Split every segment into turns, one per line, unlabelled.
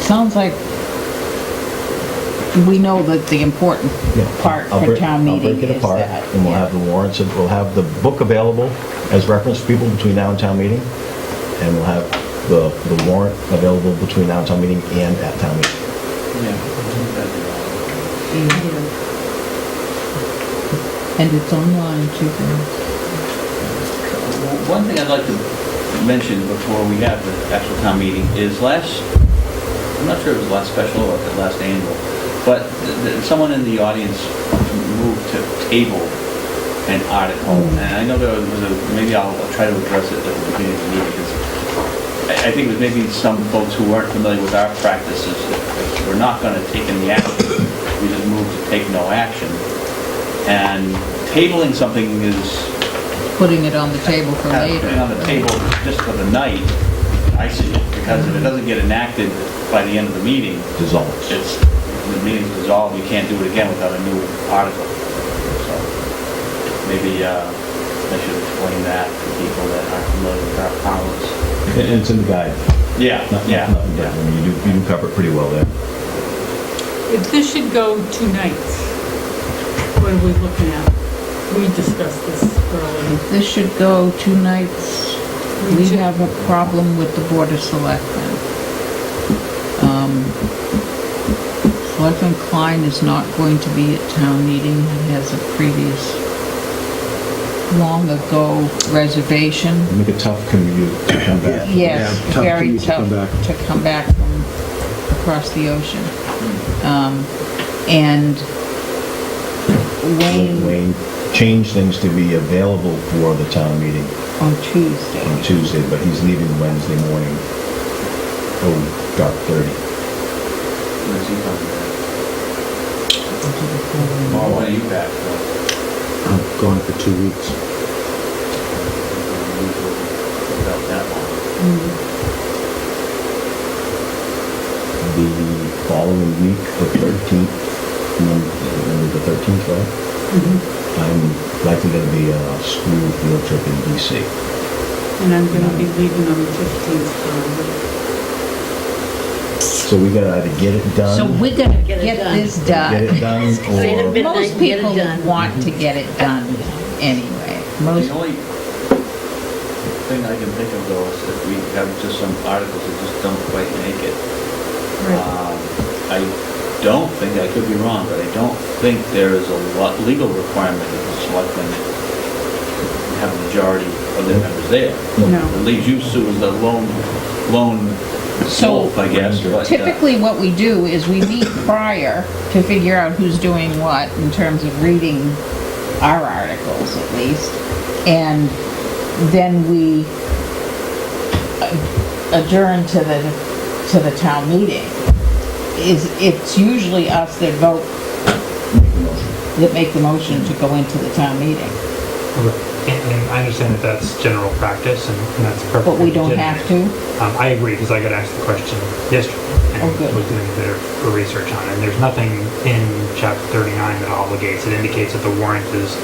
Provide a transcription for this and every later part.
sounds like we know that the important
Yeah.
part
I'll
for
break-
town
I'll break
meeting
it
is
apart,
that.
And we'll
yeah.
have the warrants, and we'll have the book available as reference for people between now and town meeting. And we'll have the, the warrant available between now and town meeting and at town meeting.
And it's online too. then.
One thing I'd like to mention before we have the actual town meeting is last, I'm not sure if it was last special or the last annual, but th- th- someone in the audience moved to table an article. And I know there was a, maybe I'll try to address it at the beginning of the meeting because I I think that maybe some folks who weren't familiar with our practices, if we're not going to take any action, we just move to take no action. And tabling something is
Putting it on the table for
kind
later.
of putting on the table just for the night, I see it, because if it doesn't get enacted by the end of the meeting,
Dissolves.
it's, the meeting's dissolved, you can't do it again without a new article. So Maybe, uh, I should explain that to people that aren't familiar with our powers.
And it's in the guide.
Yeah,
Not-
yeah,
not- not- I
yeah.
mean, You do, you do cover it pretty well there.
If this should go two nights, what are we looking at? We discussed this earlier.
If this should go two nights, we
Two-
have a problem with the Board of Selectmen. Um, Selectman Klein is not going to be at town meeting. He has a previous long ago reservation.
Make it tough commute to come back.
Yes,
Yeah, tough
very
commute to
tough
come back.
to come back from across the ocean. Um, And Wayne
Wayne changed things to be available for the town meeting
on Tuesday.
on Tuesday, but he's leaving Wednesday morning. Oh, dark thirty.
Let's see how- Well, when are you back?
I'm gone for two weeks.
About that long.
the following week, the 13th, Monday, the 13th, right? I'm likely going to be on a school field trip in DC.
And I'm going to be leaving on the 15th for
So we gotta either get it done.
So we're gonna
Get it
get
done.
this
Get
done.
it done,
Say it a
or,
bit.
Most
Midnight, get it
people
done.
want to get it done anyway. Most,
The only thing I can think of though is if we have just some articles that just don't quite make it. Um, I don't think, I could be wrong, but I don't think there is a lo- legal requirement that the selectmen have a majority of their members there.
No.
It leaves you, Sue, as the lone, lone
So-
wolf, I guess, but. uh,
typically what we do is we meet prior to figure out who's doing what in terms of reading our articles at least. And then we adjourn to the, to the town meeting. Is, it's usually us that vote, that make the motion to go into the town meeting.
And, and I understand that that's general practice and, and that's perfect.
But we don't have to?
Um, I agree, because I got asked the question yesterday and
Oh, good.
was doing a bit of research on it. And there's nothing in chapter 39 that obligates, it indicates that the warrant is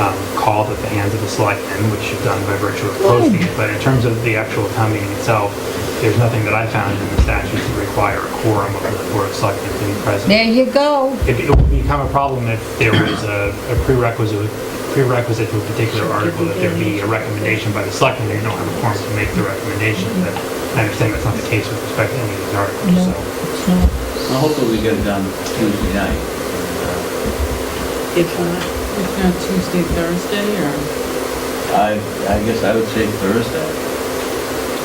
um, called at the hands of the selectmen, which you've done by virtue of posting it. But in terms of the actual town meeting itself, there's nothing that I found in the statute to require a quorum of the board of selectmen to be present
There you go.
it, it would become a problem if there was a, a prerequisite prerequisite to a particular article that there be a recommendation by the selectmen. They don't have a forum to make the recommendation. But I understand that's not the case with respect to any of these
No,
articles. So.
it's not.
Well, Hopefully we get it done Tuesday night. And, uh,
If not,
the, if not Tuesday, Thursday, or?
uh, I, I guess I would say Thursday.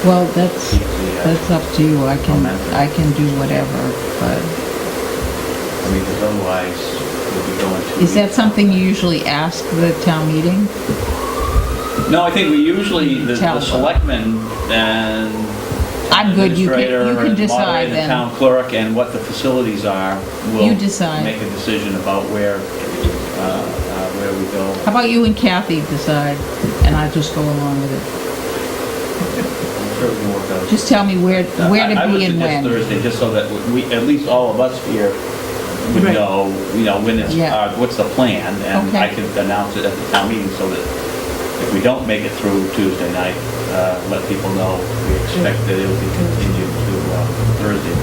Well, that's,
Yeah.
that's up to you. I can,
Momentum.
I can do whatever, but
I mean, because otherwise, we'll be going to...
is that something you usually ask the town meeting?
No, I think we usually, the
Tell
the
them.
selectmen and
I'm good, you can, you
administrator
can
and moderator,
decide
the
then.
town clerk, and what the facilities are.
You decide.
We'll make a decision about where, uh, uh, where we
How
go.
about you and Kathy decide, and I just go along with it?
I'm sure we can work out.
Just tell me where,
Uh,
where
I-
to be and
I
when.
would suggest Thursday, just so that we, at least all of us here would
Right.
know, you know, when it's,
Yeah.
uh, what's the plan, and
Okay.
I can announce it at the town meeting, so that if we don't make it through Tuesday night, uh, let people know we expect that it will be continued to uh, Thursday,